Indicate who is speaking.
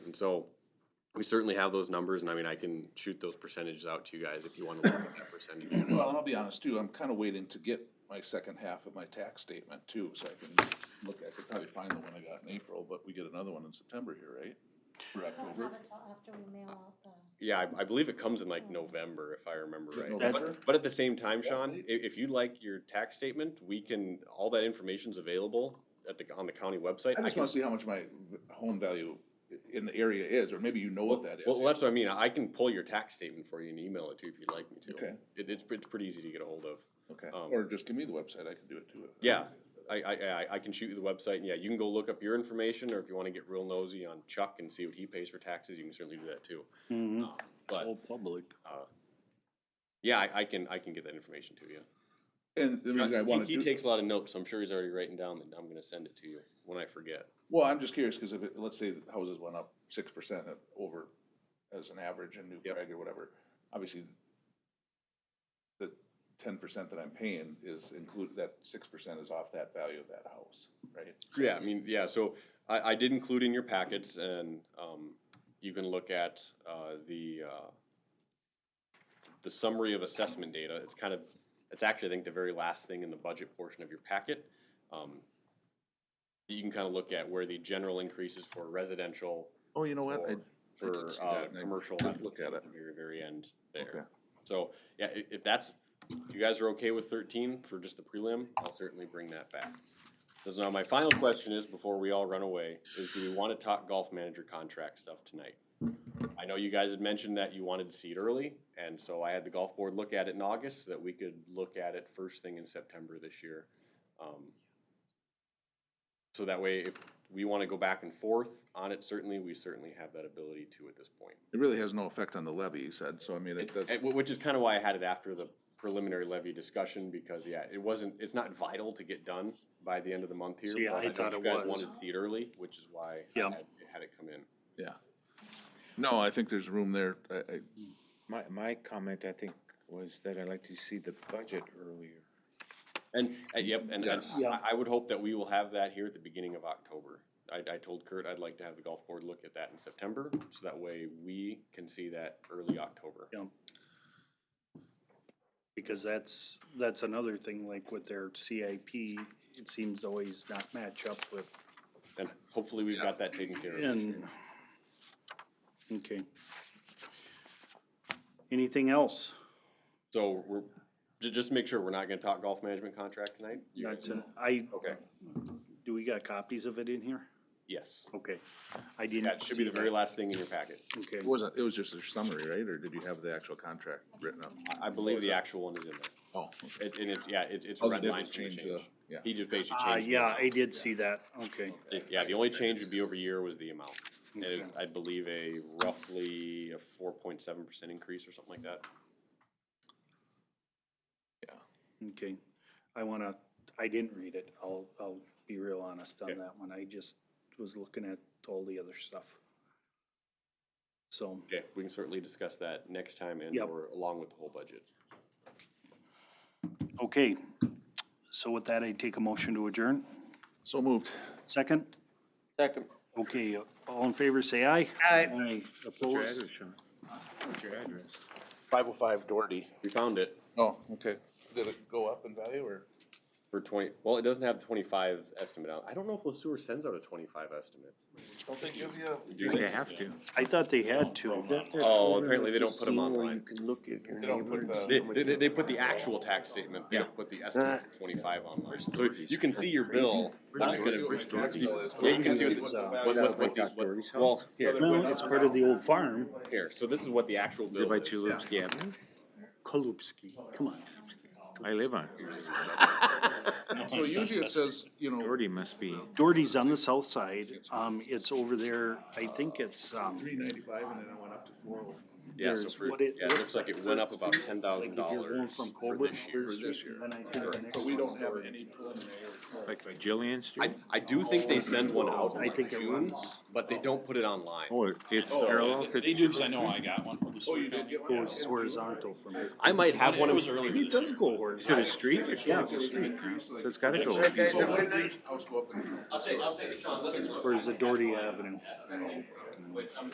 Speaker 1: And so we certainly have those numbers, and I mean, I can shoot those percentages out to you guys if you wanna look at that percentage.
Speaker 2: Well, and I'll be honest too, I'm kinda waiting to get my second half of my tax statement too, so I can look, I could probably find the one I got in April, but we get another one in September here, right? Or
Speaker 3: I don't have
Speaker 2: October?
Speaker 3: until after we mail out the,
Speaker 1: Yeah, I, I believe it comes in like November, if I remember right.
Speaker 2: November?
Speaker 1: But- But at the same time, Sean, i- if you'd like your tax statement, we can, all that information's available at the, on the county website.
Speaker 2: I just
Speaker 1: can-
Speaker 2: wanna see how much my v- home value i- in the area is, or maybe you know what that is.
Speaker 1: Well, that's what I mean, I can pull your tax statement for you and email it to you if you'd like me to.
Speaker 2: Okay.
Speaker 1: It, it's, it's pretty easy to get a hold of.
Speaker 2: Okay,
Speaker 1: um,
Speaker 2: or just give me the website, I can do it too.
Speaker 1: Yeah, I, I, I, I can shoot you the website, and yeah, you can go look up your information, or if you wanna get real nosy on Chuck and see what he pays for taxes, you can certainly do that too.
Speaker 2: Mm-hmm.
Speaker 4: Mhm.
Speaker 1: Um, But,
Speaker 4: public.
Speaker 1: yeah, I, I can, I can get that information to you.
Speaker 2: And the reason I
Speaker 1: He-
Speaker 2: wanna
Speaker 1: He
Speaker 2: do-
Speaker 1: takes a lot of notes, so I'm sure he's already writing down that I'm gonna send it to you when I forget.
Speaker 2: Well, I'm just curious, cause if, it- let's say the houses went up six percent over as an average in New
Speaker 1: Yep.
Speaker 2: Prague or whatever, obviously the ten percent that I'm paying is included, that six percent is off that value of that house, right?
Speaker 1: Yeah, I mean, yeah, so I, I did include in your packets and, um, you can look at, uh, the, uh, the summary of assessment data. It's kind of, it's actually, I think, the very last thing in the budget portion of your packet. Um, You can kind of look at where the general increases for residential,
Speaker 2: Oh, you know what? I-
Speaker 1: for, for,
Speaker 2: see
Speaker 1: uh,
Speaker 2: that, and I
Speaker 1: commercial.
Speaker 2: didn't
Speaker 1: that's
Speaker 2: look at
Speaker 1: at
Speaker 2: it.
Speaker 1: the Very, very end
Speaker 2: Okay.
Speaker 1: there. So, yeah, i- if that's, if you guys are okay with thirteen for just the prelim, I'll certainly bring that back. So now my final question is, before we all run away, is do we wanna talk golf manager contract stuff tonight? I know you guys had mentioned that you wanted to see it early, and so I had the golf board look at it in August, so that we could look at it first thing in September this year. Um, So that way, if we wanna go back and forth on it, certainly, we certainly have that ability to at this point.
Speaker 2: It really has no effect on the levy, you said, so I mean, it
Speaker 1: It-
Speaker 2: does,
Speaker 1: it- Which is kind of why I had it after the preliminary levy discussion, because, yeah, it wasn't, it's not vital to get done by the end of the month here.
Speaker 4: See,
Speaker 1: but
Speaker 4: I
Speaker 1: know
Speaker 4: thought it
Speaker 1: You guys
Speaker 4: was.
Speaker 1: wanted to see it early, which is why I
Speaker 4: Yeah.
Speaker 1: had had it come in.
Speaker 2: yeah. No, I think there's room there, I, I,
Speaker 5: My, my comment, I think, was that I'd like to see the budget earlier.
Speaker 1: And, uh, yep, and and
Speaker 2: Yes.
Speaker 4: Yeah.
Speaker 1: I, I would hope that we will have that here at the beginning of October. I, I told Kurt I'd like to have the golf board look at that in September, so that way we can see that early October.
Speaker 4: Yeah. Because that's, that's another thing, like with their CIP, it seems to always not match up with,
Speaker 1: And hopefully we've got that taken care of. this year.
Speaker 4: and, okay. Anything else?
Speaker 1: So we're, ju- just make sure we're not gonna talk golf management contract tonight? You
Speaker 4: Not
Speaker 1: guys-
Speaker 4: to, I,
Speaker 1: Okay,
Speaker 4: do we got copies of it in here?
Speaker 1: yes.
Speaker 4: Okay. I
Speaker 1: That
Speaker 4: didn't
Speaker 1: should be
Speaker 4: see
Speaker 1: the
Speaker 4: that.
Speaker 1: very last thing in your packet.
Speaker 4: Okay,
Speaker 2: it wasn't, it was just a summary, right, or did you have the actual contract written up?
Speaker 1: I- I believe the actual one is in there.
Speaker 2: Oh.
Speaker 1: It, and it, yeah, it, it's
Speaker 2: All
Speaker 4: Oh,
Speaker 2: they
Speaker 1: red
Speaker 2: did was
Speaker 1: lines from the
Speaker 2: change the,
Speaker 1: change.
Speaker 2: yeah.
Speaker 1: He just basically
Speaker 4: uh,
Speaker 1: changed. the
Speaker 4: yeah,
Speaker 1: amount.
Speaker 4: I did see that, okay.
Speaker 1: It- Yeah, the only change would be over year was the amount. And it-
Speaker 4: Okay.
Speaker 1: I believe a roughly a four point seven percent increase or something like that.
Speaker 4: Okay, I wanna, I didn't read it, I'll, I'll be real honest on
Speaker 1: Okay.
Speaker 4: that one, I just was looking at all the other stuff. So,
Speaker 1: Okay, we can certainly discuss that next time and
Speaker 4: Yep.
Speaker 1: or along with the whole budget.
Speaker 4: okay, so with that, I take a motion to adjourn,
Speaker 2: So moved.
Speaker 4: second?
Speaker 1: Second.
Speaker 4: Okay, all in favor, say aye. Aye. Aye, opposed,
Speaker 5: Sean? What's your address?
Speaker 2: Five oh five Doherty.
Speaker 1: We found it
Speaker 2: Oh, okay. Did it go up in value or?
Speaker 1: for twenty, well, it doesn't have the twenty-five estimate out. I don't know if Le Sueur sends out a twenty-five estimate.
Speaker 2: Don't they give you?
Speaker 1: Do
Speaker 5: They
Speaker 1: they?
Speaker 5: have to.
Speaker 4: I thought they had to,
Speaker 1: Oh, apparently they don't put them online.
Speaker 2: They don't put the,
Speaker 1: They, they, they- they put the actual tax statement, they don't put the estimate for twenty-five online, so you can see your bill. That's gonna-
Speaker 2: Where's Doherty?
Speaker 1: Yeah, you can see what, the- what, what, what, the- what- well, here,
Speaker 4: no, it's part of the old farm,
Speaker 1: here, so this is what the actual
Speaker 5: Is it
Speaker 1: bill
Speaker 5: by
Speaker 1: is.
Speaker 5: Tulipsky Avenue?
Speaker 4: Kalupski, come on.
Speaker 5: I live on. it.
Speaker 2: So usually it says, you know,
Speaker 5: Doherty must be,
Speaker 4: Doherty's on the south side, um, it's over there, I think it's, um,
Speaker 2: three ninety-five and then it went up to four.
Speaker 1: Yeah, so
Speaker 4: There's
Speaker 1: for,
Speaker 4: what it
Speaker 1: yeah, it looks like it went up about
Speaker 4: Like,
Speaker 1: ten thousand
Speaker 4: if you're going
Speaker 1: dollars
Speaker 4: from
Speaker 1: for
Speaker 4: Colbert
Speaker 1: this
Speaker 4: to
Speaker 1: year.
Speaker 4: Third
Speaker 2: this
Speaker 4: Street,
Speaker 2: year.
Speaker 4: Then I think the
Speaker 1: Correct.
Speaker 4: next
Speaker 2: But we
Speaker 4: one's
Speaker 2: don't have
Speaker 4: already-
Speaker 2: any preliminary.
Speaker 5: Like by Jillian
Speaker 1: I,
Speaker 5: Street?
Speaker 1: I do think they send one out in
Speaker 4: I
Speaker 1: like
Speaker 4: think it
Speaker 1: June,
Speaker 4: runs.
Speaker 1: but they don't put it online.
Speaker 5: Oh, it's parallel to.
Speaker 6: They do, cause I know I got one from the
Speaker 2: Oh,
Speaker 6: sewer
Speaker 2: you did
Speaker 6: company.
Speaker 2: get one?
Speaker 4: Goes horizontal from here.
Speaker 1: I might have one
Speaker 6: It
Speaker 1: of
Speaker 6: was earlier
Speaker 4: Maybe it
Speaker 6: this
Speaker 4: does
Speaker 6: year.
Speaker 4: go horizontal.
Speaker 5: Is it a street? Yeah, it's a street. So It's gotta go. a piece of-
Speaker 2: House go up in-
Speaker 4: Or is it Doherty Avenue?